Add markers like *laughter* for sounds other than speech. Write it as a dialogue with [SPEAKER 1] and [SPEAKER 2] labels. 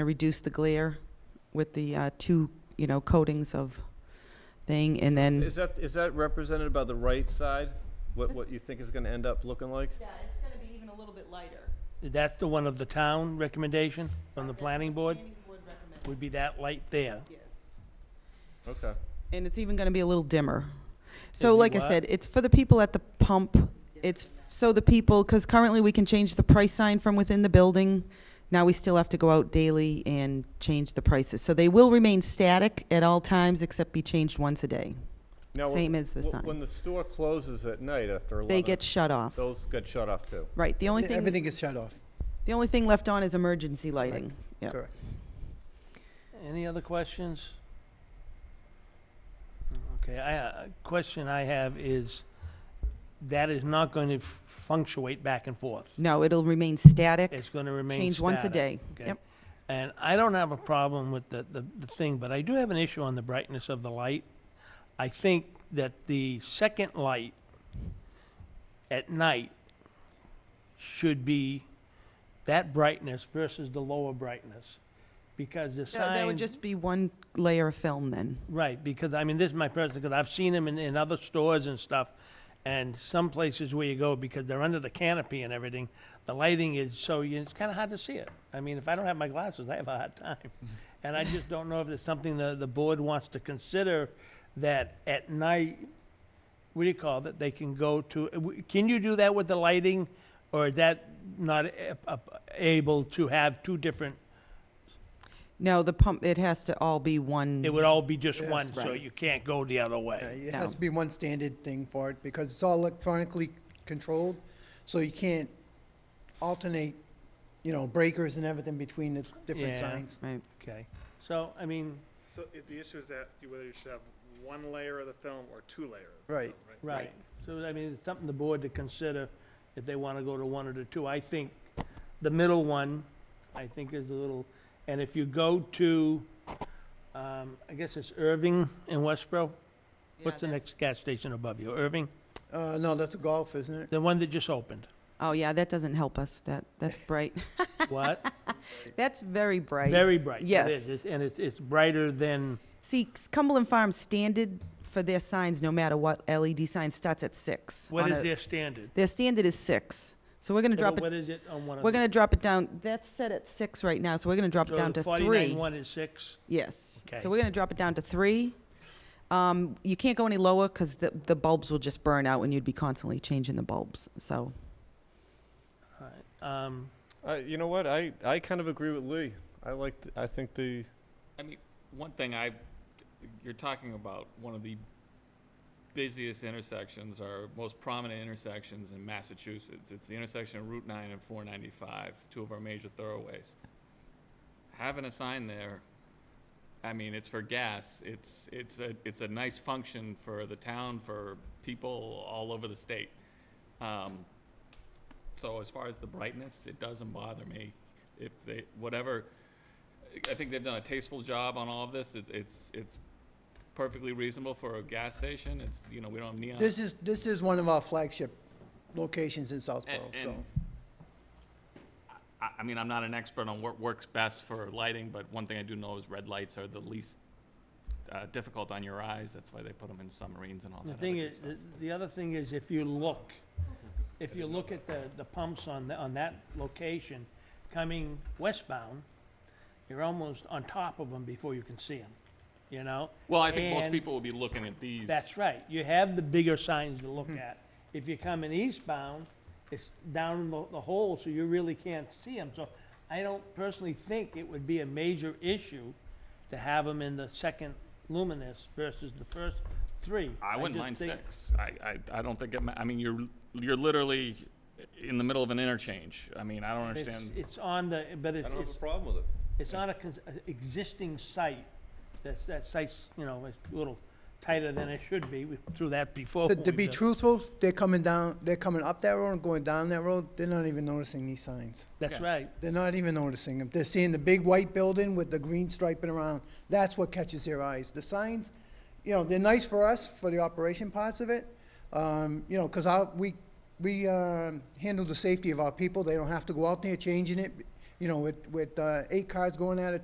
[SPEAKER 1] to reduce the glare with the uh, two, you know, coatings of thing, and then,
[SPEAKER 2] Is that, is that represented by the right side? What, what you think is gonna end up looking like?
[SPEAKER 1] yeah, it's going to be even a little bit lighter.
[SPEAKER 3] That's the one of the town recommendation from the planning board, would be that light there.
[SPEAKER 2] Okay.
[SPEAKER 1] And it's even going to be a little dimmer. So
[SPEAKER 3] It'd be
[SPEAKER 1] like I
[SPEAKER 3] what?
[SPEAKER 1] said, it's for the people at the pump. It's f- so the people, because currently we can change the price sign from within the building. Now we still have to go out daily and change the prices. So they will remain static at all times except be changed once a day.
[SPEAKER 2] Now, when-
[SPEAKER 1] Same as the
[SPEAKER 2] wh-
[SPEAKER 1] sign.
[SPEAKER 2] When the store closes at night after
[SPEAKER 1] They
[SPEAKER 2] eleven,
[SPEAKER 1] get shut off.
[SPEAKER 2] those get shut off too.
[SPEAKER 1] Right, the only thing,
[SPEAKER 4] Everything is shut off.
[SPEAKER 1] the only thing left on is emergency lighting. Yeah.
[SPEAKER 4] Correct.
[SPEAKER 3] Any other questions? Okay, I, uh, question I have is, that is not going to fluctuate back and forth.
[SPEAKER 1] No, it'll remain static,
[SPEAKER 3] It's going to remain
[SPEAKER 1] change once a
[SPEAKER 3] static,
[SPEAKER 1] day.
[SPEAKER 3] okay?
[SPEAKER 1] Yep,
[SPEAKER 3] And I don't have a problem with the, the, the thing, but I do have an issue on the brightness of the light. I think that the second light at night should be that brightness versus the lower brightness. Because the
[SPEAKER 1] That-
[SPEAKER 3] sign.
[SPEAKER 1] that would just be one layer of film then.
[SPEAKER 3] Right, because, I mean, this is my personal, because I've seen them in, in other stores and stuff, and some places where you go, because they're under the canopy and everything, the lighting is so, you- it's kind of hard to see it. I mean, if I don't have my glasses, I have a hard time.
[SPEAKER 4] Mm-hmm.
[SPEAKER 3] And I just don't know if it's something the, the board wants to consider, that at night, what do you call it, they can go to, uh, w- can you do that with the lighting? Or is that not a- a- able to have two different,
[SPEAKER 1] No, the pump, it has to all be one.
[SPEAKER 3] it would all be just
[SPEAKER 4] Mm-hmm. Yes.
[SPEAKER 3] one, so
[SPEAKER 1] Right.
[SPEAKER 3] you can't go the other way?
[SPEAKER 4] Yeah, It
[SPEAKER 1] No.
[SPEAKER 4] has to be one standard thing for it because it's all electronically controlled, so you can't alternate, you know, breakers and everything between the different
[SPEAKER 3] Yeah.
[SPEAKER 4] signs.
[SPEAKER 1] Right.
[SPEAKER 3] Okay, so, I mean,
[SPEAKER 5] So i- the issue is that you- whether you should have one layer of the film or two layer. of the
[SPEAKER 4] Right.
[SPEAKER 5] film,
[SPEAKER 3] right, so I mean, it's something the board to consider if they wanna go to one or the two. I think the middle one, I think is a little, and if you go to, um, I guess it's Irving in Westboro? What's the next gas station above you, Irving?
[SPEAKER 4] Uh, no, that's a golf, isn't it?
[SPEAKER 3] The one that just
[SPEAKER 1] *laughs*
[SPEAKER 3] opened,
[SPEAKER 1] Oh, yeah, that doesn't help us. That, *laughs* that's bright.
[SPEAKER 3] what?
[SPEAKER 1] That's very bright.
[SPEAKER 3] Very bright. It is.
[SPEAKER 1] Yes.
[SPEAKER 3] It's- And it's, it's brighter than,
[SPEAKER 1] See, Cumberland Farms standard for their signs, no matter what, LED sign starts at six.
[SPEAKER 3] what
[SPEAKER 1] on
[SPEAKER 3] is
[SPEAKER 1] a-
[SPEAKER 3] their standard?
[SPEAKER 1] Their standard is six. So we're gonna
[SPEAKER 3] Yeah, but
[SPEAKER 1] drop it,
[SPEAKER 3] What is it on one of them?
[SPEAKER 1] we're gonna drop it down, that's set at six right now, so we're gonna drop it down to
[SPEAKER 3] So the forty-nine
[SPEAKER 1] three.
[SPEAKER 3] one is six?
[SPEAKER 1] Yes.
[SPEAKER 3] Okay.
[SPEAKER 1] So we're gonna drop it down to three. Um, you can't go any lower because the, the bulbs will just burn out and you'd be constantly changing the bulbs, so.
[SPEAKER 3] All right, um,
[SPEAKER 2] Uh, you know what? I, I kind of agree with Lee. I like, th- I think the,
[SPEAKER 6] I mean, one thing I, you're talking about one of the busiest intersections or most prominent intersections in Massachusetts. It's the intersection of Route 9 and 495, two of our major thoroughways. Having a sign there, I mean, it's for gas. It's it's a it's a nice function for the town, for people all over the state. Um, so as far as the brightness, it doesn't bother me. If they whatever. I think they've done a tasteful job on all of this. It, it's, it's perfectly reasonable for a gas station. It's, you know, we don't have neon.
[SPEAKER 4] This is, this is one of our flagship locations in Southborough,
[SPEAKER 6] And-
[SPEAKER 4] so.
[SPEAKER 6] and- I, I mean, I'm not an expert on what works best for lighting, but one thing I do know is red lights are the least uh, difficult on your eyes. That's why they put them in submarines and all
[SPEAKER 3] The
[SPEAKER 6] that. other
[SPEAKER 3] thing
[SPEAKER 6] good
[SPEAKER 3] is,
[SPEAKER 6] stuff.
[SPEAKER 3] the- the other thing is, if you look, if you look at the, the pumps on, the- on that location, coming westbound, you're almost on top of them before you can see them, you know?
[SPEAKER 6] Well, I think most
[SPEAKER 3] And-
[SPEAKER 6] people will be looking at these.
[SPEAKER 3] That's right, you have the bigger signs to look at. If you're coming eastbound, it's down in the, the hole, so you really can't see them. So I don't personally think it would be a major issue to have them in the second luminous versus the first three.
[SPEAKER 6] I wouldn't
[SPEAKER 3] just
[SPEAKER 6] mind
[SPEAKER 3] think-
[SPEAKER 6] six. I, I, I don't think it, ma- I mean, you're, you're literally in the middle of an interchange. I mean, I don't
[SPEAKER 3] It's-
[SPEAKER 6] understand.
[SPEAKER 3] It's on the, but
[SPEAKER 2] I
[SPEAKER 3] it's,
[SPEAKER 2] don't have
[SPEAKER 3] it's,
[SPEAKER 2] a problem with it.
[SPEAKER 3] it's on a, cons- a existing site, that's, that site's, you know, is a little tighter than it should be, we threw that before.
[SPEAKER 4] To,
[SPEAKER 3] when
[SPEAKER 4] to
[SPEAKER 3] we
[SPEAKER 4] be
[SPEAKER 3] built-
[SPEAKER 4] truthful, they're coming down, they're coming up that road and going down that road, they're not even noticing these signs.
[SPEAKER 3] That's
[SPEAKER 6] Okay.
[SPEAKER 3] right,
[SPEAKER 4] They're not even noticing them. They're seeing the big white building with the green striping around. That's what catches their eyes. The signs, you know, they're nice for us for the operation parts of it. Um, you know, because we, we, um, handle the safety of our people. They don't have to go out there changing it. you know, with, with, uh, eight cars going at a